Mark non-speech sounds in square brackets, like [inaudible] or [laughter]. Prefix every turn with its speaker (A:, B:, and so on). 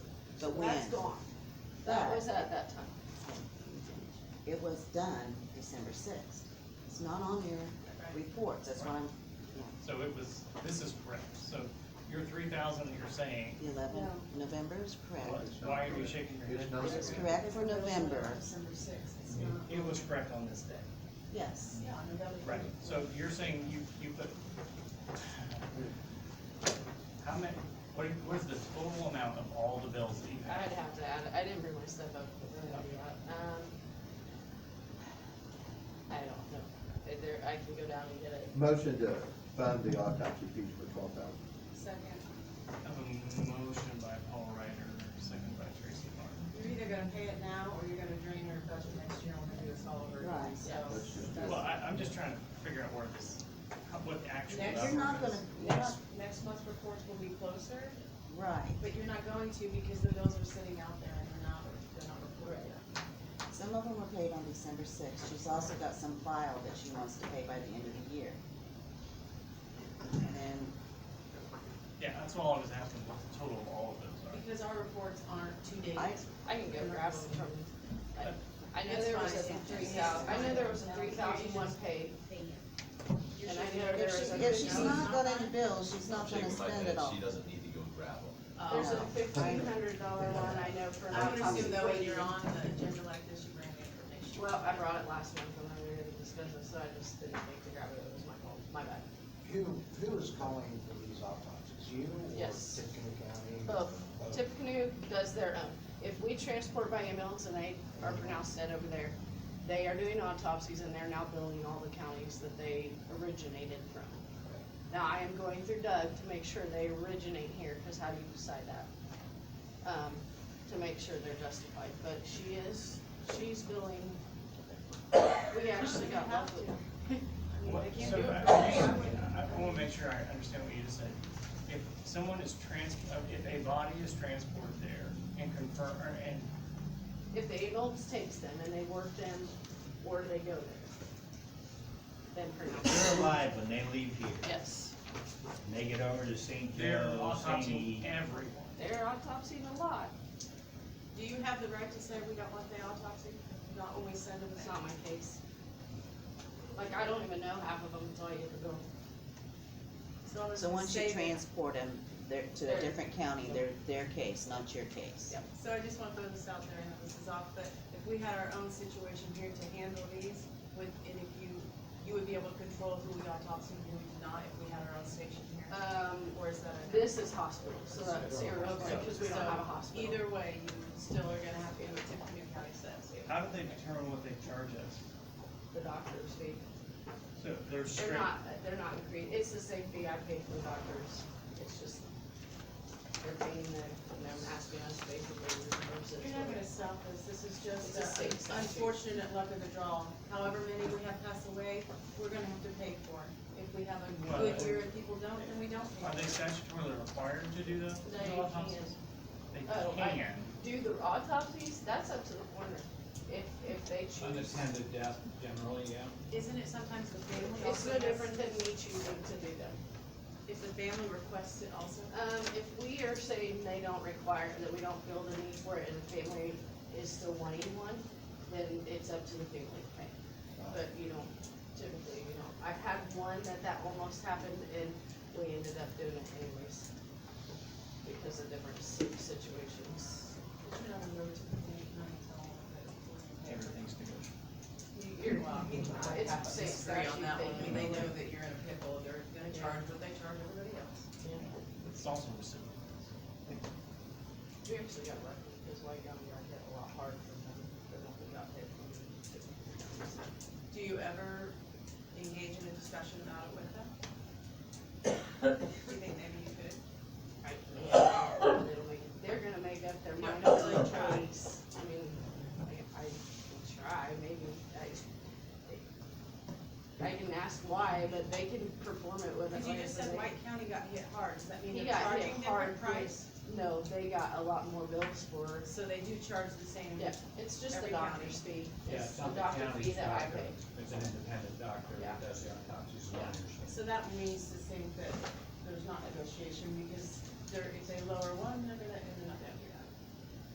A: the
B: So That's
A: wind.
B: gone.
C: That
A: But-
C: was at that time.
A: It was done December sixth. It's not on your reports, that's why I'm,
D: So it was, this is correct, so your three thousand that you're saying,
A: the eleventh,
C: No.
A: November is correct.
D: what- why are you shaking your
E: It's
D: head?
E: not-
A: It's correct for November,
B: December sixth, it's
D: It-
B: not.
D: It was correct on this day,
A: yes.
B: Yeah, November.
D: right, so you're saying you, you put. How many, what, is- what is the total amount of all the bills that you have?
C: I'd have to add, I didn't bring my stuff up, but then I'll be out. Um, I don't know. Is there, I can go down and get it.
E: Motion to fund the autopsy fees for twelve thousand.
B: Second,
D: I have a motion by Paul Ryder, second by Tracy Martin.
B: you're either gonna pay it now, or you're gonna drain your budget next year, and we're gonna do this all over again,
A: Right.
B: so.
E: Let's just-
B: that's-
D: Well, I, I'm just trying to figure out where this, how- what the actual
B: Next-
D: number
A: You're not gonna,
D: is.
A: you're not,
B: Next, next month's reports will be closer,
A: right.
B: but you're not going to, because the bills are sitting out there and they're not, they're not reported yet.
A: Some of them were paid on December sixth. She's also got some file that she wants to pay by the end of the year. And then,
D: Yeah, that's all I was asking, what the total of all of those are.
B: Because our reports aren't two days.
A: I-
C: I can go grab them from, I, I know
B: That's
C: there was a
B: fine.
C: three thousand, I know there was a three thousand one paid.
B: You
C: And I
B: should-
C: know
A: if
C: there is
A: she,
C: a.
A: if she's not got any bills, she's not
F: Shake
A: gonna
F: 'em like
A: spend
F: that,
A: it all.
F: She doesn't need to go grab 'em.
C: There's a
A: Oh.
C: fifteen hundred dollar one I know for.
B: Um, I would
C: autopsy
B: assume though, when
C: free.
B: you're on the agenda like this, you bring the information.
C: Well, I brought it last month when I was gonna discuss it, so I just didn't think to grab it, it was my fault, my bad.
G: Who, who is calling for these autopsies? You or
C: Yes.
G: Tippecanoe County?
C: Both. Tippecanoe does their own. If we transport by ambulance and they are pronounced dead over there, they are doing autopsies and they're now billing all the counties that they originated from. Now, I am going through Doug to make sure they originate here, cause how do you decide that? Um, to make sure they're justified, but she is, she's billing. We actually got [laughs] lucky. I mean,
D: What-
C: they can't
D: So,
C: do it.
D: I, I- I wanna make sure I understand what you just said. If someone is trans, uh, if a body is transported there and confirm, or- and,
C: If the ambulance takes them and they work them, or they go there, then pronounce.
H: They're alive when they leave here,
C: Yes,
H: and they get over to St.
D: they're
H: Joe,
D: autopsying
H: St.
D: everyone.
C: they're autopsying a lot,
B: Do you have the right to say we don't want the autopsy, not when we send them
C: it's
B: back?
C: not my case. Like, I don't even know half of them until I get to go.
B: So
A: So once you
B: save it.
A: transport them, they're, to a different county, they're, their case, not your case.
C: Yep.
B: So I just want to throw this out there, and this is off, but if we had our own situation here to handle these, with, and if you, you would be able to control who we autopsy and who we did not, if we had our own station here?
C: Um,
B: Or is that? a-
C: this is hospital, so that's irrelevant, because we don't have a
B: So
C: hospital.
B: Either way, you still are gonna have to, go with Tiffany County says.
D: How do they determine what they charge us?
C: The doctors fee,
D: So they're
C: they're
D: straight,
C: not, they're not agreed, it's the same fee I pay for the doctors, it's just, they're paying the, and they're asking us basically to reimburse it.
B: You're not gonna stop this, this is
C: It's a
B: just
C: state
B: uh,
C: statute.
B: unfortunate luck of the draw. However many we have pass away, we're gonna have to pay for it. If we have a
D: Well,
B: good year and people don't, then we don't
D: are they
B: pay.
D: statutorily required to do those
C: They can.
D: autopsies? They
C: Oh, I-
D: can,
C: do the autopsies, that's up to the coroner, if, if they choose.
I: Unattended death generally, yeah.
B: Isn't it sometimes the family
C: It's
B: also
C: no
B: has-
C: different than me choosing to do them.
B: If the family requests it also?
C: Um, if we are saying they don't require, that we don't feel the need for it, and the family is still wanting one, then it's up to the family to pay. But you don't, typically, you don't, I've had one that that almost happened, and we ended up doing it anyways, because of different si- situations.
B: Should have a road to the family, not all of it.
D: everything's negotiable.
C: You're,
B: Well, you know, I
C: it's
B: have
C: the
B: to
C: same
B: disagree
C: statute
B: on that one. I mean,
C: thing.
B: they know that you're in a pickle, they're gonna
C: Yeah.
B: charge what they charge everybody else.
D: It's also reciprocal.
C: We actually got lucky because White County got hit a lot hard from them, but we got hit from them.
B: Do you ever engage in a discussion about it with them? Do you think maybe you could?
C: It'll be- They're gonna make up their mind on their choice. I mean, I, I can try, maybe, I, I can ask why, but they can perform it with.
B: Because you just said White County got hit hard, does that mean
C: He
B: they're
C: got hit
B: charging
C: hard.
B: different price?
C: No, they got a lot more bills for,
B: So they do charge the same?
C: yeah, it's just the
B: Every
C: doctor's fee.
I: Yeah,
C: It's
I: it's
C: the
I: not the
C: doctor fee
I: county's
C: that I
I: doctor.
C: pay.
I: It's an independent doctor
C: Yeah.
I: that does the autopsies and
C: Yeah.
I: understands.
B: So that means to think that there's not negotiation, because they're, if they lower one, they're gonna, and then